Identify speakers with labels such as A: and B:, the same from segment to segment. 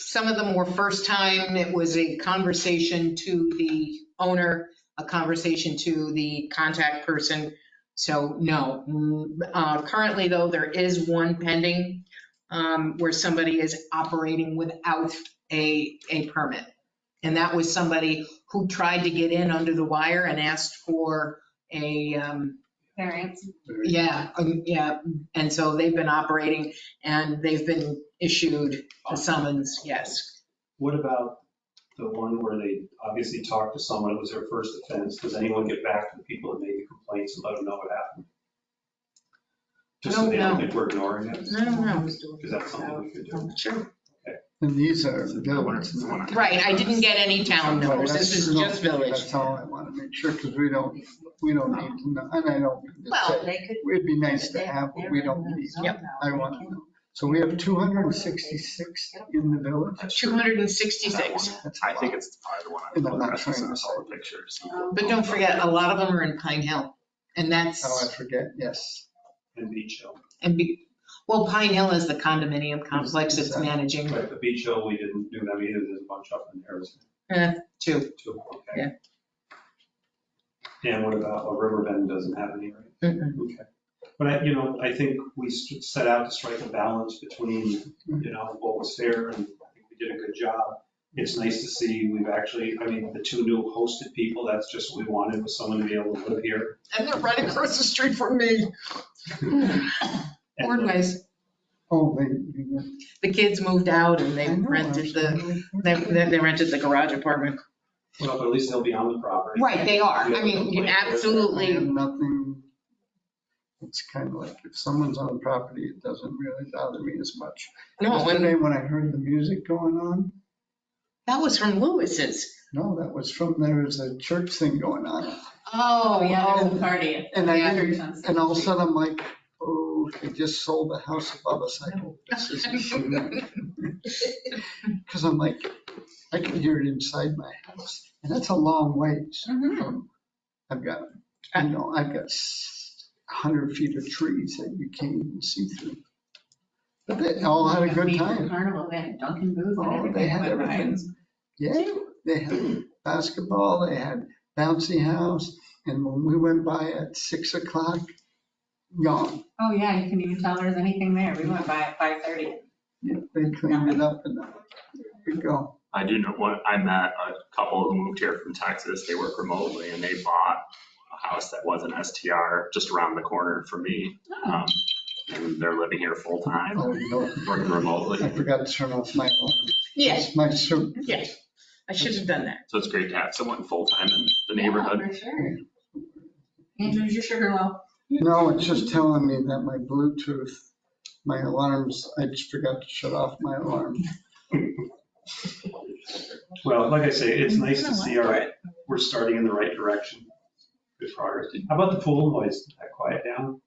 A: Some of them were first time, it was a conversation to the owner, a conversation to the contact person. So no, Mm, uh, currently though, there is one pending um, where somebody is operating without a, a permit. And that was somebody who tried to get in under the wire and asked for a, um,
B: variance.
A: yeah, um, yeah, and so they've been operating and they've been issued a summons, yes.
C: What about the one where they obviously talked to someone, it was their first offense? Does anyone get back to the people that made the complaints and let them know what happened? Just so
A: No,
C: they don't
A: no.
C: think we're ignoring it?
A: No, no,
C: Is that something we could do?
A: no. Sure.
D: And these are village. ones.
A: Right, I didn't get any town numbers, this is
D: Right,
A: just
D: that's-
A: village.
D: That's all I want to make sure, because we don't, we don't need to know, and I don't, mean to
A: Well,
D: say- it'd be nice to have, but we don't need.
A: Yep.
D: I want to know. So we have 266 in the village?
A: 266,
D: That's a
E: I think
D: lot.
E: it's probably the one.
D: And I'm not
E: that's
D: trying to
E: in the
D: say
E: solid pictures.
A: Um, but don't forget, uh, a lot of them are in Pine Hill, and
D: Oh,
A: that's,
D: I forget, yes.
C: And Beach Hill,
A: and be, well, Pine Hill is the condominium complex it's managing
C: right, the Beach Hill, we didn't do them either, there's a bunch up in there, isn't
A: too.
C: there? Two, okay. And what about, a Riverbend doesn't have any, right?
A: Mhm.
C: Okay. But I, you know, I think we s- set out to strike a balance between, you know, what was fair and I think we did a good job. It's nice to see we've actually, I mean, the two new hosted people, that's just what we wanted, was someone to be able to live here.
A: And they're right across the street from me.
C: And
A: Boardways,
D: Oh, they, they-
A: the kids moved out and they
D: I know,
A: rented the,
D: actually.
A: They, they they rented the garage apartment.
C: Well, but at least they'll be on the property.
A: Right, they are. I mean, you
D: I
A: absolutely,
D: have nothing, it's kind of like, if someone's on property, it doesn't really bother me as much.
A: no, and
D: Yesterday, when I heard the music going on,
A: that was from Lewis's.
D: no, that was from, there was a church thing going on.
A: Oh,
B: Oh, yeah, there's a
A: yeah.
B: party.
D: And I,
B: Yeah,
D: didn't-
B: sounds-
D: and all of a sudden, I'm like, oh, they just sold the house above us. I hope this isn't. Because I'm like, I can hear it inside my house, and that's a long ways.
B: Mhm.
D: from- I've got, you know, I've got s- 100 feet of trees that you can't even see through. But they all had a good
B: We-
D: time.
B: Carnival, they had Dunkin' Booth and
D: Oh,
B: everything.
D: they had
B: I went by and-
D: everything. Yeah, they had basketball, they had bouncy house, and when we went by at 6 o'clock, gone.
B: Oh, yeah, you can even tell there's anything there. We went by at 5:30.
D: Yeah, They cleaned it up and we go.
E: I do know, one. I met a couple who moved here from Texas, they work remotely, and they bought a house that was an STR just around the corner from me. Um, And they're living here full-time,
D: Oh, no,
E: working
D: I
E: remotely,
D: forgot to turn off my alarm.
A: Yeah,
D: It's My suit.
A: yeah. I should have done that.
E: so it's great to have someone full-time in the neighborhood.
B: Yeah, Oh, For sure. Andrew's your sugar loaf.
D: No, it's just telling me that my Bluetooth, my alarms, I just forgot to shut off my alarm.
C: Well, like I say, it's
A: Mm-hmm.
C: nice to see, all right, we're starting in the right direction. Good progress. How about the pool noise? Did that quiet down?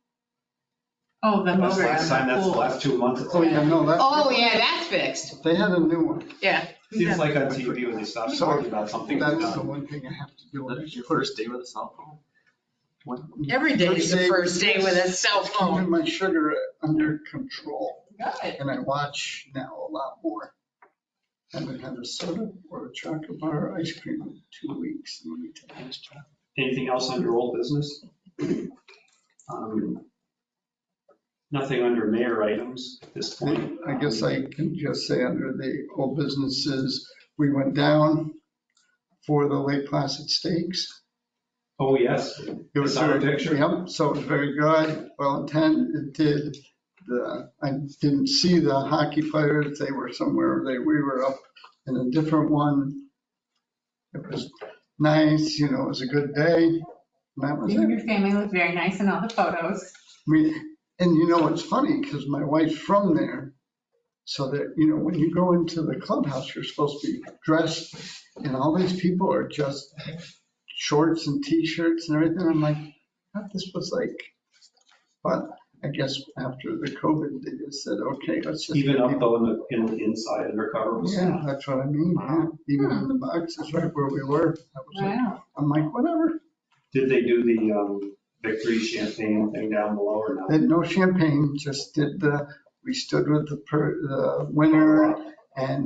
B: Oh, the
C: That's
B: motor on
C: last time,
B: the
C: that's the
B: pool.
C: last two months. It
D: Oh, yeah, no,
A: Oh,
D: that,
A: yeah, that's fixed.
D: they had a new one.
A: Yeah.
C: Seems like on TV when they stop talking about something. they've
D: That's the
C: done.
D: one thing I have to do.
E: That's your first day with a cell phone?
A: Every day is the first day with a cell phone.
D: Keeping my sugar under control
B: Good.
D: and I watch now a lot more. Haven't had a soda or a chocolate bar or ice cream in two weeks. Let me tell you.
C: Anything else under old business? Um, Nothing under mayor items at this point.
D: I guess I can just say under the old businesses, we went down for the Lake Placid Stakes.
C: Oh, yes.
D: It was
C: I saw the
D: very-
C: picture.
D: Yep, so it was very good, well intended, it did, the, I didn't see the hockey players, they were somewhere, they, we were up in a different one. It was nice, you know, it was a good day, and that was
B: You
D: it.
B: and your family look very nice in all the photos.
D: I mean, and you know, it's funny because my wife's from there. So that, you know, when you go into the clubhouse, you're supposed to be dressed and all these people are just shorts and t-shirts and everything. I'm like, what this was like. But I guess after the COVID, they just said, okay, let's just.
C: Even up though in the, in the inside undercover was.
D: Yeah, that's what I mean. yeah. Even in the boxes right where we were. I was like-
B: Wow.
D: I'm like, whatever.
C: Did they do the um, victory champagne thing down below or not?
D: Had no champagne, just did the, we stood with the, per- the winner and